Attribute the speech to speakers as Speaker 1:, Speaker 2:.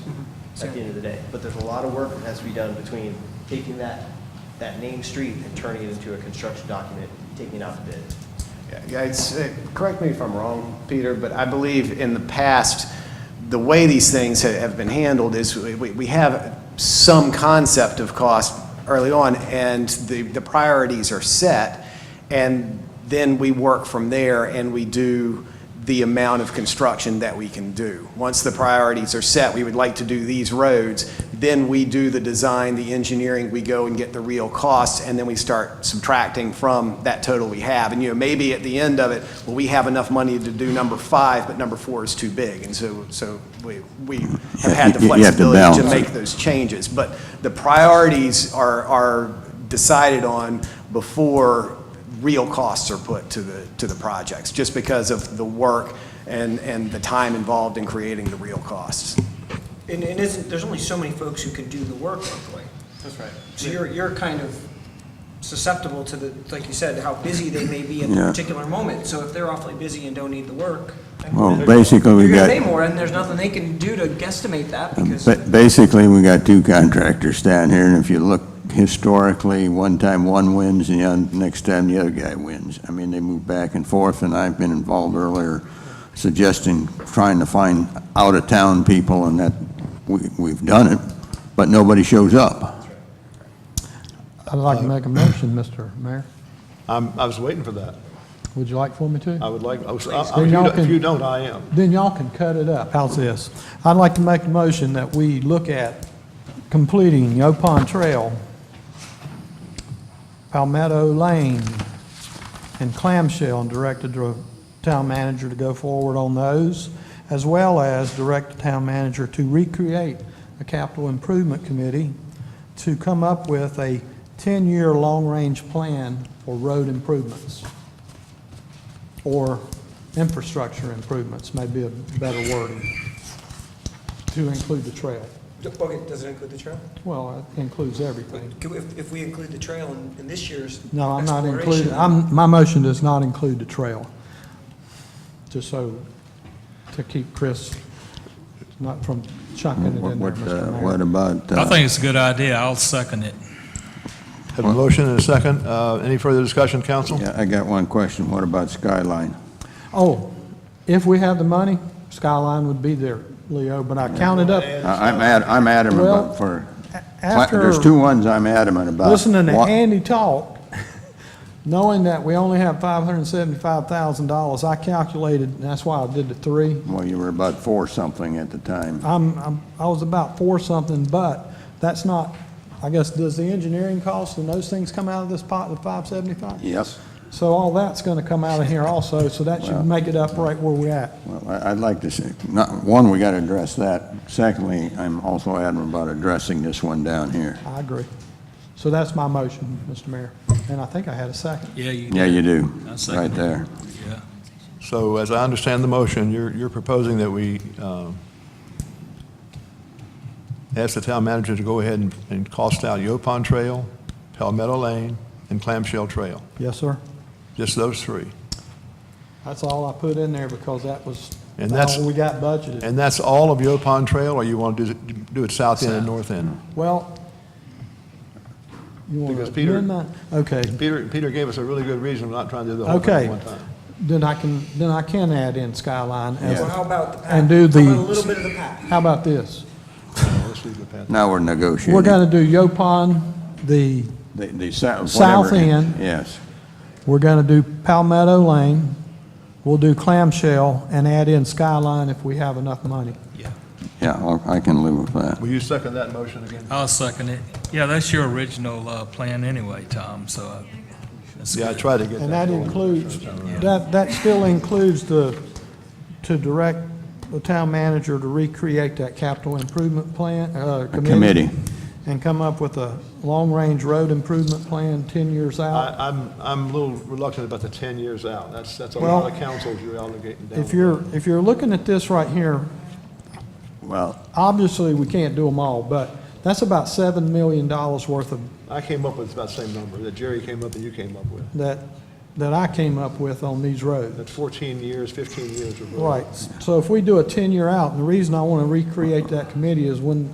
Speaker 1: at the end of the day. But there's a lot of work that has to be done between taking that, that name street and turning it into a construction document, taking it out to bid.
Speaker 2: Yeah, Yeah, it's, eh, correct me if I'm wrong, Peter, but I believe in the past, the way these things ha- have been handled is we- we we have some concept of cost early on, and the the priorities are set, and then we work from there, and we do the amount of construction that we can do. Once the priorities are set, we would like to do these roads, then we do the design, the engineering, we go and get the real costs, and then we start subtracting from that total we have. And, you know, maybe at the end of it, well, we have enough money to do number five, but number four is too big. And so, so we, we have had the
Speaker 3: You- you have to balance
Speaker 2: flexibility to
Speaker 3: it.
Speaker 2: make those changes. But the priorities are, are decided on before real costs are put to the, to the projects, just because of the work and, and the time involved in creating the real costs.
Speaker 4: And, and isn't, there's only so many folks who can do the work locally.
Speaker 1: That's right.
Speaker 4: So you're, you're kind of susceptible to the, like you said, how busy they may be in
Speaker 3: Yeah.
Speaker 4: a particular moment. So if they're awfully busy and don't need the work,
Speaker 3: Well, basically, we
Speaker 4: you're gonna
Speaker 3: got.
Speaker 4: pay more, and there's nothing they can do to guesstimate that because.
Speaker 3: Ba- Basically, we got two contractors down here, and if you look historically, one time one wins, and the oth- next time the other guy wins. I mean, they move back and forth, and I've been involved earlier suggesting, trying to find out-of-town people, and that, we- we've done it, but nobody shows up.
Speaker 5: I'd like to make a motion, Mr. Mayor.
Speaker 6: I'm, I was waiting for that.
Speaker 5: Would you like for me
Speaker 6: I
Speaker 5: to?
Speaker 6: would like, I was-
Speaker 5: Then
Speaker 6: I- I- if you
Speaker 5: y'all
Speaker 6: don't- if
Speaker 5: can-
Speaker 6: you don't, I am.
Speaker 5: Then y'all can cut it up. How's this? I'd like to make a motion that we look at completing Yopon Trail, Palmetto Lane, and Clamshell, and directed the town manager to go forward on those, as well as direct the town manager to recreate a capital improvement committee to come up with a 10-year long-range plan for road improvements. or infrastructure improvements, may be a better wording, to include the trail.
Speaker 4: Okay, does it include the trail?
Speaker 5: Well, it includes everything.
Speaker 4: Can we- If, if we include the trail in, in this year's.
Speaker 5: No, I'm not
Speaker 4: including.
Speaker 5: including, I'm, my motion does not include the trail, just so, to keep Chris not from chucking it
Speaker 3: What,
Speaker 5: in there,
Speaker 3: what, uh,
Speaker 5: Mr. Mayor.
Speaker 3: what about? uh,
Speaker 7: I think it's a good idea. I'll second it.
Speaker 6: Have a motion and a second. Uh, Any further discussion, council?
Speaker 3: Yeah, I got one question. What about Skyline?
Speaker 5: Oh, if we have the money, Skyline would be there, Leo, but I counted up,
Speaker 3: I- I'm ad- I'm adamant
Speaker 5: Well,
Speaker 3: about for,
Speaker 5: after-
Speaker 3: there's two ones I'm adamant about.
Speaker 5: listening to
Speaker 3: One-
Speaker 5: Andy talk, knowing that we only have five hundred and seventy-five thousand dollars, I calculated, and that's why I did the three.
Speaker 3: Well, you were about four something at the time.
Speaker 5: I'm, I'm, I was about four something, but that's not, I guess, does the engineering cost and those things come out of this pot, the five seventy-five?
Speaker 3: Yes.
Speaker 5: So all that's gonna come out of here also, so that should make it up right where we're at.
Speaker 3: Well, I- I'd like to see, not, one, we got to address that. Secondly, I'm also adamant about addressing this one down here.
Speaker 5: I agree. So that's my motion, Mr. Mayor, and I think I had a second.
Speaker 7: Yeah, you.
Speaker 3: Yeah, you do,
Speaker 7: I second
Speaker 3: right
Speaker 7: it.
Speaker 3: there.
Speaker 7: Yeah.
Speaker 6: So as I understand the motion, you're, you're proposing that we um, ask the town manager to go ahead and- and cost out Yopon Trail, Palmetto Lane, and Clamshell Trail,
Speaker 5: Yes, sir.
Speaker 6: just those three.
Speaker 5: That's all I put in there because that was
Speaker 6: And that's-
Speaker 5: all we got budgeted.
Speaker 6: And that's all of Yopon Trail, or you want to do it- do it south end and north end?
Speaker 5: Well, you want
Speaker 6: Because
Speaker 5: to
Speaker 6: Peter-
Speaker 5: amend that? Okay,
Speaker 6: Peter, Peter gave us a really good reason for not trying to do the whole thing at
Speaker 5: okay.
Speaker 6: one time.
Speaker 5: Then I can, then I can add in Skyline as,
Speaker 4: Well, how about the pack?
Speaker 5: and do the.
Speaker 4: How about a little bit of the pack?
Speaker 5: How about this?
Speaker 6: Okay. Let's leave it at that.
Speaker 3: Now we're negotiating.
Speaker 5: We're gonna do Yopon, the,
Speaker 3: The, the south,
Speaker 5: South
Speaker 3: whatever-
Speaker 5: end.
Speaker 3: Yes.
Speaker 5: we're gonna do Palmetto Lane, we'll do Clamshell, and add in Skyline if we have enough money.
Speaker 3: Yeah, I'll- I can live with that.
Speaker 6: Will you second that motion again?
Speaker 7: I'll second it. Yeah, that's your original uh, plan anyway, Tom, so. uh, that's
Speaker 6: Yeah, I
Speaker 7: good.
Speaker 6: tried to get that.
Speaker 5: And that
Speaker 6: going.
Speaker 5: includes, that, that still includes the, to direct the town manager to recreate that capital improvement plan, uh, committee.
Speaker 3: committee.
Speaker 5: And come up with a long-range road improvement plan 10 years out.
Speaker 6: I, I'm, I'm a little reluctant about the 10 years out. That's, that's a
Speaker 5: Well,
Speaker 6: lot of councils you're allocating down.
Speaker 5: If you're, if you're looking at this right here,
Speaker 3: Well,
Speaker 5: obviously, we can't do them all, but that's about $7 million worth of,
Speaker 6: I came up with about the same number that Jerry came up and you came up with.
Speaker 5: that, that I came up with on these roads.
Speaker 6: That's 14 years, 15 years of. road.
Speaker 5: Right, so if we do a 10-year out, and the reason I want to recreate that committee is when